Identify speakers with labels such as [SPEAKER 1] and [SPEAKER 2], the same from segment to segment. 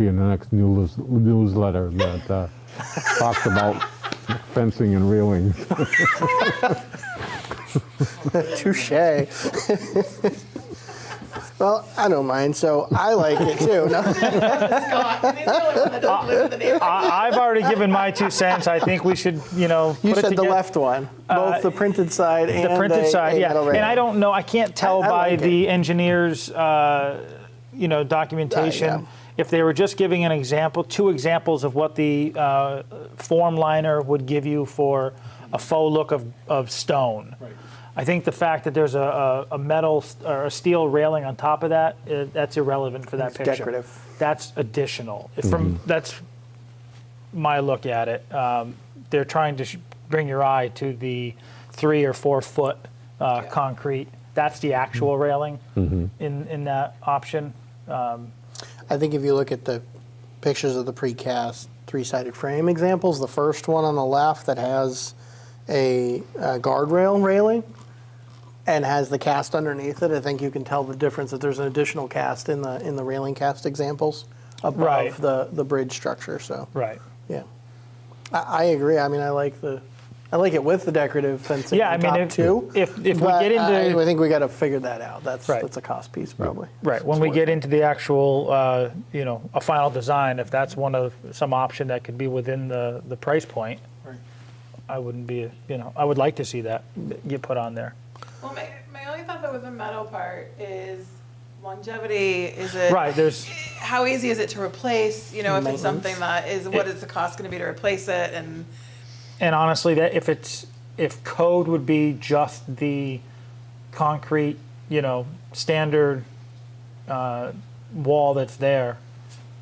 [SPEAKER 1] be in the next news, newsletter that uh, talks about fencing and railing.
[SPEAKER 2] Touche. well, I don't mind, so I like it too. No?
[SPEAKER 3] I, I've already given my two cents. I think we should, you know,
[SPEAKER 2] You
[SPEAKER 3] put it
[SPEAKER 2] said the
[SPEAKER 3] together- Uh,
[SPEAKER 2] left one, both the printed side and
[SPEAKER 3] the printed
[SPEAKER 2] a-
[SPEAKER 3] side,
[SPEAKER 2] a
[SPEAKER 3] yeah.
[SPEAKER 2] metal rail.
[SPEAKER 3] And I don't know. I can't tell
[SPEAKER 2] I- I
[SPEAKER 3] by
[SPEAKER 2] like
[SPEAKER 3] the engineer's, uh, you know, documentation if they were just giving an example, two examples of what the uh, form liner would give you for a faux look of, of stone. Right. I think the fact that there's a, a, a metal s- or a steel railing on top of that, uh, that's irrelevant for that
[SPEAKER 2] It's
[SPEAKER 3] picture.
[SPEAKER 2] decorative.
[SPEAKER 3] That's additional. If From that's my look at it. Um, they're trying to sh- bring your eye to the three or four foot uh, concrete. That's the actual railing in in that option.
[SPEAKER 2] I think if you look at the pictures of the precast three-sided frame examples, the first one on the left that has a, uh guardrail railing and has the cast underneath it, I think you can tell the difference that there's an additional cast in the in the railing cast examples above
[SPEAKER 3] Right.
[SPEAKER 2] the the bridge structure. So
[SPEAKER 3] Right.
[SPEAKER 2] yeah, I, I agree. I mean, I like the. I like it with the decorative fencing.
[SPEAKER 3] Yeah,
[SPEAKER 2] on
[SPEAKER 3] I mean,
[SPEAKER 2] top
[SPEAKER 3] if-
[SPEAKER 2] too.
[SPEAKER 3] if- if we
[SPEAKER 2] but
[SPEAKER 3] get into-
[SPEAKER 2] I, I think we got to figure that out. That's
[SPEAKER 3] Right.
[SPEAKER 2] that's a cost piece probably.
[SPEAKER 3] Right. When we get into the actual, uh, you know, a final design, if that's one of some option that could be within the the price point,
[SPEAKER 2] Right.
[SPEAKER 3] I wouldn't be, you know, I would like to see that get put on there.
[SPEAKER 4] Well, my, my only thought though with the metal part is longevity, is it?
[SPEAKER 3] Right, there's-
[SPEAKER 4] How easy is it to replace, you know, if it's something that is, what
[SPEAKER 3] It-
[SPEAKER 4] is the cost gonna be to replace it and?
[SPEAKER 3] And honestly, that if it's if code would be just the concrete, you know, standard uh, wall that's there,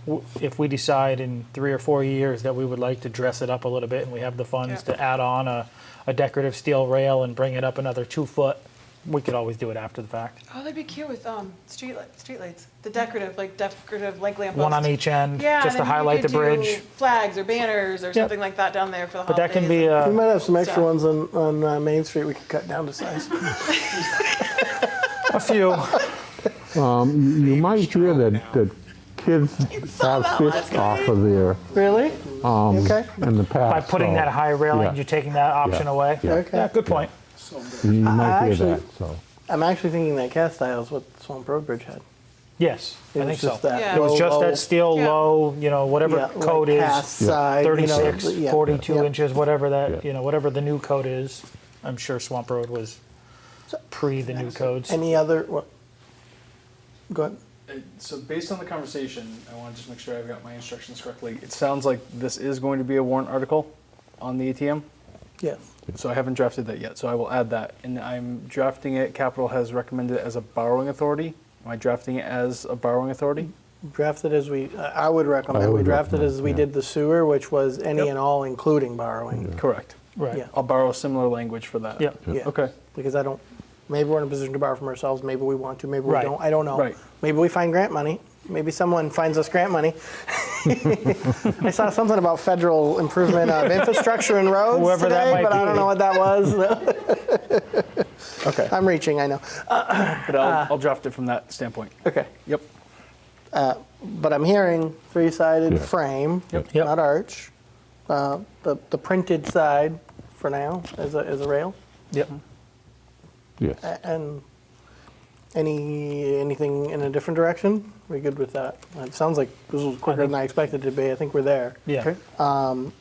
[SPEAKER 3] w- if we decide in three or four years that we would like to dress it up a little bit and we have the funds
[SPEAKER 4] Yeah.
[SPEAKER 3] to add on a, a decorative steel rail and bring it up another two foot, we could always do it after the fact.
[SPEAKER 4] Oh, that'd be cute with, um, street li- streetlights, the decorative, like decorative, like lamp
[SPEAKER 3] One on
[SPEAKER 4] posts.
[SPEAKER 3] each end,
[SPEAKER 4] Yeah,
[SPEAKER 3] just to
[SPEAKER 4] then you
[SPEAKER 3] highlight the
[SPEAKER 4] could do
[SPEAKER 3] bridge.
[SPEAKER 4] Flags or banners or something like that down there for the
[SPEAKER 3] But that can
[SPEAKER 4] holidays.
[SPEAKER 3] be
[SPEAKER 4] and-
[SPEAKER 2] We
[SPEAKER 3] a,
[SPEAKER 2] might have some extra
[SPEAKER 4] So-
[SPEAKER 2] ones on, on uh, Main Street we could cut down to size.
[SPEAKER 3] a few.
[SPEAKER 1] You might hear that, that kids
[SPEAKER 4] saw
[SPEAKER 1] have
[SPEAKER 4] that last
[SPEAKER 1] fished off
[SPEAKER 4] night.
[SPEAKER 1] of there
[SPEAKER 2] really?
[SPEAKER 1] um,
[SPEAKER 2] Okay.
[SPEAKER 1] in the past.
[SPEAKER 3] By putting
[SPEAKER 1] so
[SPEAKER 3] that high railing,
[SPEAKER 1] yeah.
[SPEAKER 3] you're taking that option
[SPEAKER 1] Yeah.
[SPEAKER 3] away.
[SPEAKER 1] Yeah.
[SPEAKER 2] Okay.
[SPEAKER 3] Yeah, good point.
[SPEAKER 1] You might hear
[SPEAKER 2] actually-
[SPEAKER 1] that, so.
[SPEAKER 2] I'm actually thinking that cast iron is what Swamp Road Bridge had.
[SPEAKER 3] Yes, I
[SPEAKER 2] It
[SPEAKER 3] think
[SPEAKER 2] was
[SPEAKER 3] so.
[SPEAKER 2] just that.
[SPEAKER 4] Yeah.
[SPEAKER 3] It was
[SPEAKER 2] low,
[SPEAKER 3] just
[SPEAKER 2] low-
[SPEAKER 3] that steel
[SPEAKER 4] Yeah.
[SPEAKER 3] low, you know, whatever
[SPEAKER 2] yeah, like
[SPEAKER 3] code
[SPEAKER 2] cast
[SPEAKER 3] is,
[SPEAKER 2] side, you know,
[SPEAKER 3] 36,
[SPEAKER 2] yeah.
[SPEAKER 3] 42
[SPEAKER 2] Yeah.
[SPEAKER 3] inches, whatever that,
[SPEAKER 1] Yeah.
[SPEAKER 3] you know, whatever the new code is. I'm sure Swamp Road was pre the new codes.
[SPEAKER 2] Any other? What? Go ahead.
[SPEAKER 5] Uh, So based on the conversation, I want to just make sure I've got my instructions correctly. It sounds like this is going to be a warrant article on the ATM.
[SPEAKER 2] Yes.
[SPEAKER 5] So I haven't drafted that yet, so I will add that. And I'm drafting it, Capital has recommended it as a borrowing authority. Am I drafting it as a borrowing authority?
[SPEAKER 2] Drafted as we, uh, I I would recommend
[SPEAKER 1] I
[SPEAKER 2] we
[SPEAKER 1] would
[SPEAKER 2] drafted
[SPEAKER 1] recommend,
[SPEAKER 2] as we
[SPEAKER 1] yeah.
[SPEAKER 2] did the sewer, which was any
[SPEAKER 5] Yep.
[SPEAKER 2] and all, including borrowing.
[SPEAKER 5] Correct.
[SPEAKER 3] Right.
[SPEAKER 2] Yeah.
[SPEAKER 5] I'll borrow similar language for that.
[SPEAKER 3] Yep.
[SPEAKER 2] Yeah.
[SPEAKER 5] Okay.
[SPEAKER 2] Because I don't. Maybe we're in a position to borrow from ourselves. Maybe we want to. Maybe
[SPEAKER 3] Right.
[SPEAKER 2] we don't. I don't know.
[SPEAKER 5] Right.
[SPEAKER 2] Maybe we find grant money. Maybe someone finds us grant money. I saw something about federal improvement of infrastructure and roads
[SPEAKER 3] Whoever that
[SPEAKER 2] today,
[SPEAKER 3] might
[SPEAKER 2] but I
[SPEAKER 3] be.
[SPEAKER 2] don't know what that was.
[SPEAKER 5] Okay.
[SPEAKER 2] I'm reaching. I know.
[SPEAKER 5] But I'll, I'll draft it from that standpoint.
[SPEAKER 2] Okay.
[SPEAKER 5] Yep.
[SPEAKER 2] But I'm hearing three-sided
[SPEAKER 1] Yeah.
[SPEAKER 2] frame,
[SPEAKER 1] Yep.
[SPEAKER 3] Yep.
[SPEAKER 2] not arch. Uh, the the printed side, for now, is a is a rail.
[SPEAKER 3] Yep.
[SPEAKER 2] Mm-hmm.
[SPEAKER 1] Yes.
[SPEAKER 2] A- And any, anything in a different direction? We good with that? It sounds like this was quicker than I expected it to be. I think we're there.
[SPEAKER 3] Yeah.
[SPEAKER 5] Okay.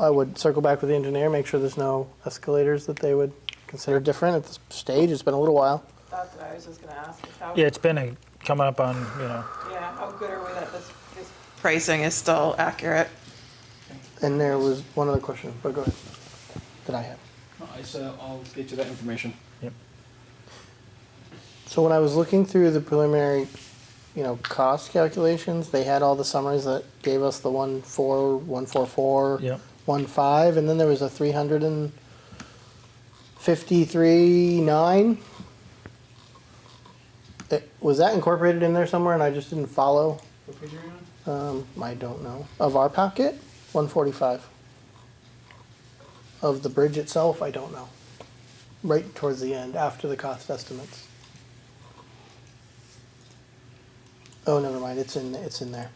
[SPEAKER 2] I would circle back with the engineer, make sure there's no escalators that they would consider different at this stage. It's been a little while.
[SPEAKER 4] That's what I was just gonna ask, is how,
[SPEAKER 3] Yeah, it's been a, coming up on, you know,
[SPEAKER 4] yeah, how good are we that this, this pricing is still accurate?
[SPEAKER 2] And there was one other question, but go ahead. That I have.
[SPEAKER 5] So I'll get you that information.
[SPEAKER 3] yep.
[SPEAKER 2] So when I was looking through the preliminary, you know, cost calculations, they had all the summaries that gave us the one four, one four four,
[SPEAKER 3] Yep.
[SPEAKER 2] one five, and then there was a three hundred and fifty-three nine. It, was that incorporated in there somewhere, and I just didn't follow?
[SPEAKER 5] What page are you on?
[SPEAKER 2] Um, I don't know. Of our pocket, one forty-five. Of the bridge itself, I don't know. Right towards the end, after the cost estimates. Oh, never mind. It's in. It's in there.